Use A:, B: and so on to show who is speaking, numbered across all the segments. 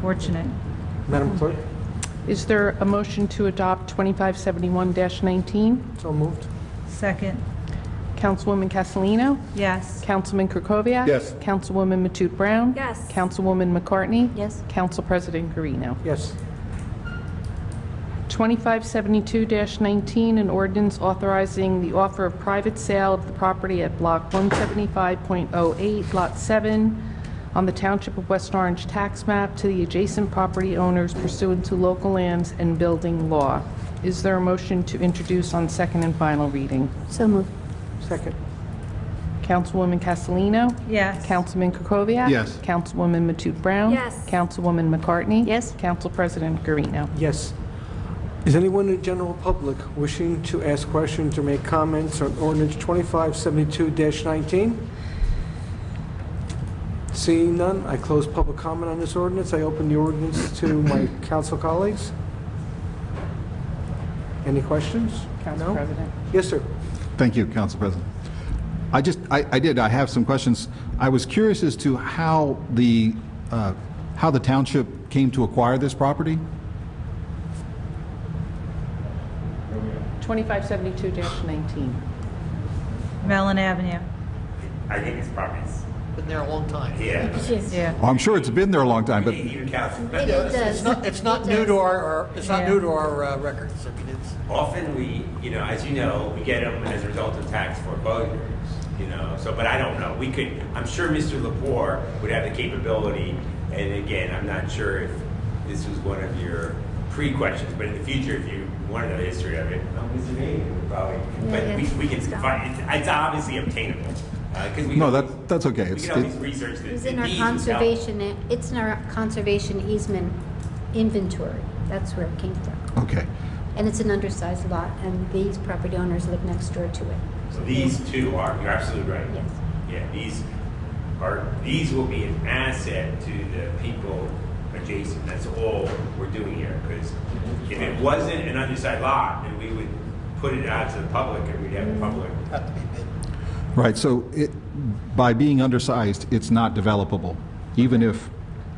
A: Fortunate.
B: Madam Clerk,
C: Is there a motion to adopt 2571-19?
B: so moved.
A: Second,
C: Councilwoman Castellino?
A: yes.
C: Councilman Krokoviac?
D: Yes.
C: Councilwoman Matute Brown?
E: Yes.
C: Councilwoman McCartney?
E: Yes.
C: Council President Garino.
B: Yes,
C: 2572-19, an ordinance authorizing the offer of private sale of the property at Block 175.08, Lot 7, on the Township of West Orange tax map to the adjacent property owners pursuant to local lands and building law. Is there a motion to introduce on second and final reading?
E: So moved.
B: second.
C: Councilwoman Castellino?
A: Yes.
C: Councilman Krokoviac?
D: Yes.
C: Councilwoman Matute Brown?
E: Yes.
C: Councilwoman McCartney?
E: Yes.
C: Council President Garino.
B: Yes. Is anyone in the general public wishing to ask questions or make comments on ordinance 2572-19? Seeing none, I close public comment on this ordinance. I open the ordinance to my council colleagues. Any questions?
C: Council
B: No?
C: President.
B: Yes, sir.
D: Thank you, Council President. I just, I, I did, I have some questions. I was curious as to how the, uh, how the township came to acquire this property?
C: 2572-19.
A: Mellon Avenue,
F: I think it's properties.
G: Been there a long time.
F: Yeah.
A: yeah.
D: Oh, I'm sure it's been there a long time, but,
F: Even council,
G: It is. It's not, it's not new to our, our- it's not new to our uh, records. I mean, it's,
F: often we, you know, as you know, we get them as a result of tax foreclosures, you know, so, but I don't know. We could, I'm sure Mr. Lepore would have the capability, and again, I'm not sure if this was one of your pre-questions, but in the future, if you want to know the history of it,
D: Oh,
F: um, Mr. Mayor would probably, but
E: Yeah,
F: we,
E: yeah.
F: we can find, it's- it's obviously obtainable, because we.
D: no,
F: can-
D: that, that's okay.
F: We
D: It's-
F: can always
D: it-
F: research the.
E: It's
F: the
E: in our
F: deeds would help.
E: conservation, e, it's in our conservation easement inventory. That's where it came from.
D: Okay,
E: And it's an undersized lot, and these property owners live next door to it.
F: So these two are, you're absolutely right.
E: Yes.
F: Yeah, these are, these will be an asset to the people adjacent. That's all we're doing here, because if it wasn't an undersized lot, then we would put it out to the public and we'd have a public.
G: have to be bid.
D: right, so it, by being undersized, it's not developable, even if,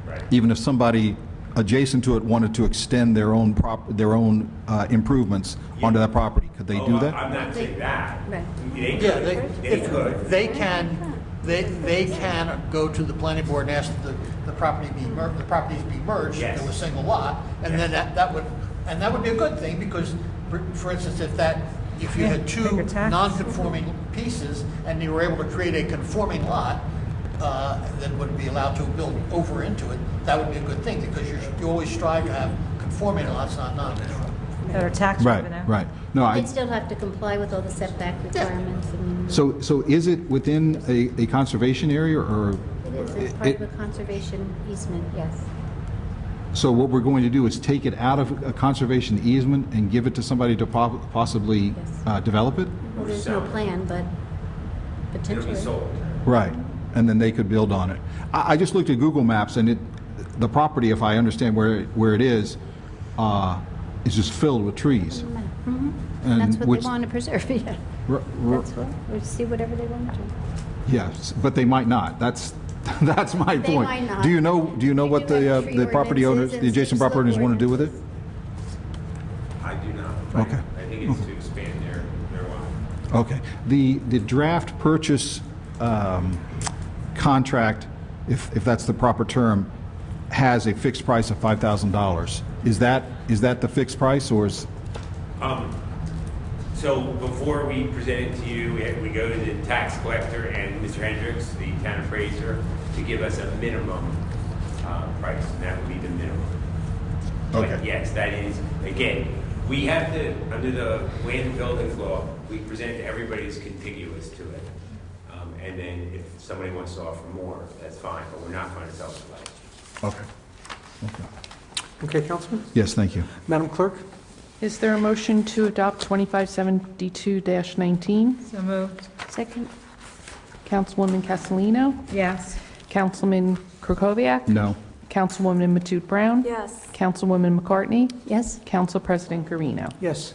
F: Right.
D: even if somebody adjacent to it wanted to extend their own prop, their own uh, improvements onto that property, could they
F: Oh,
D: do
F: I-
D: that?
F: I'm not saying that.
E: Right.
F: They
G: Yeah,
F: could,
G: they,
F: they could.
G: if, they can, they, they can go to the planning board and ask that the, the property be mer, the properties be merged
F: Yes.
G: into a single lot. And then that, that would, and that would be a good thing because, for- for instance, if that, if you had two
A: Bigger tax.
G: non-conforming pieces and you were able to create a conforming lot, uh, that would be allowed to build over into it, that would be a good thing because you, you always strive to have conforming lots, not non-conforming.
A: Better tax revenue.
D: Right, right. No, I.
E: They'd still have to comply with all the setback requirements and
D: So, so is it within a, a conservation area or?
E: it is it's part of a conservation easement, yes.
D: So what we're going to do is take it out of a conservation easement and give it to somebody to po- possibly
E: Yes.
D: uh, develop it?
E: Well, there's no plan, but
F: It'll
E: potentially.
F: be sold.
D: Right, and then they could build on it. I, I just looked at Google Maps and it, the property, if I understand where, where it is, uh, is just filled with trees. And
E: Mm-hmm. That's what
D: which-
E: they want to preserve, yeah.
D: r- r-
E: That's what, we see whatever they want to.
D: Yes, but they might not. That's, that's my
E: They
D: point.
E: might not.
D: Do you know, do you know
E: They
D: what
E: do
D: the, uh,
E: have tree
D: the property owners,
E: ordinances
D: the
E: and
D: adjacent property owners
E: slope
D: want to do with it?
E: ordinances.
F: I do not. I-
D: Okay.
F: I think it's to expand their, their lot.
D: Okay. The, the draft purchase um, contract, if, if that's the proper term, has a fixed price of $5,000. Is that, is that the fixed price, or is,
F: Um, So before we present it to you, we we go to the tax collector and Mr. Hendricks, the town appraiser, to give us a minimum uh, price, and that would be the minimum. But
D: Okay.
F: yes, that is, again, we have to, under the land and buildings law, we present to everybody that's contiguous to it. Um, And then if somebody wants to offer more, that's fine, but we're not going to sell it.
D: okay. Okay.
B: Okay, Councilman?
D: Yes, thank you.
B: Madam Clerk?
C: Is there a motion to adopt 2572-19?
A: So moved,
E: Second?
C: Councilwoman Castellino?
A: yes.
C: Councilman Krokoviac?
D: No.
C: Councilwoman Matute Brown?
E: Yes.
C: Councilwoman McCartney?
E: Yes?
C: Council President Garino.
B: Yes.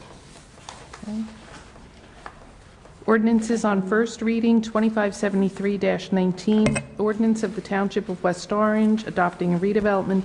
C: Ordinances on first reading, 2573-19, ordinance of the Township of West Orange adopting a redevelopment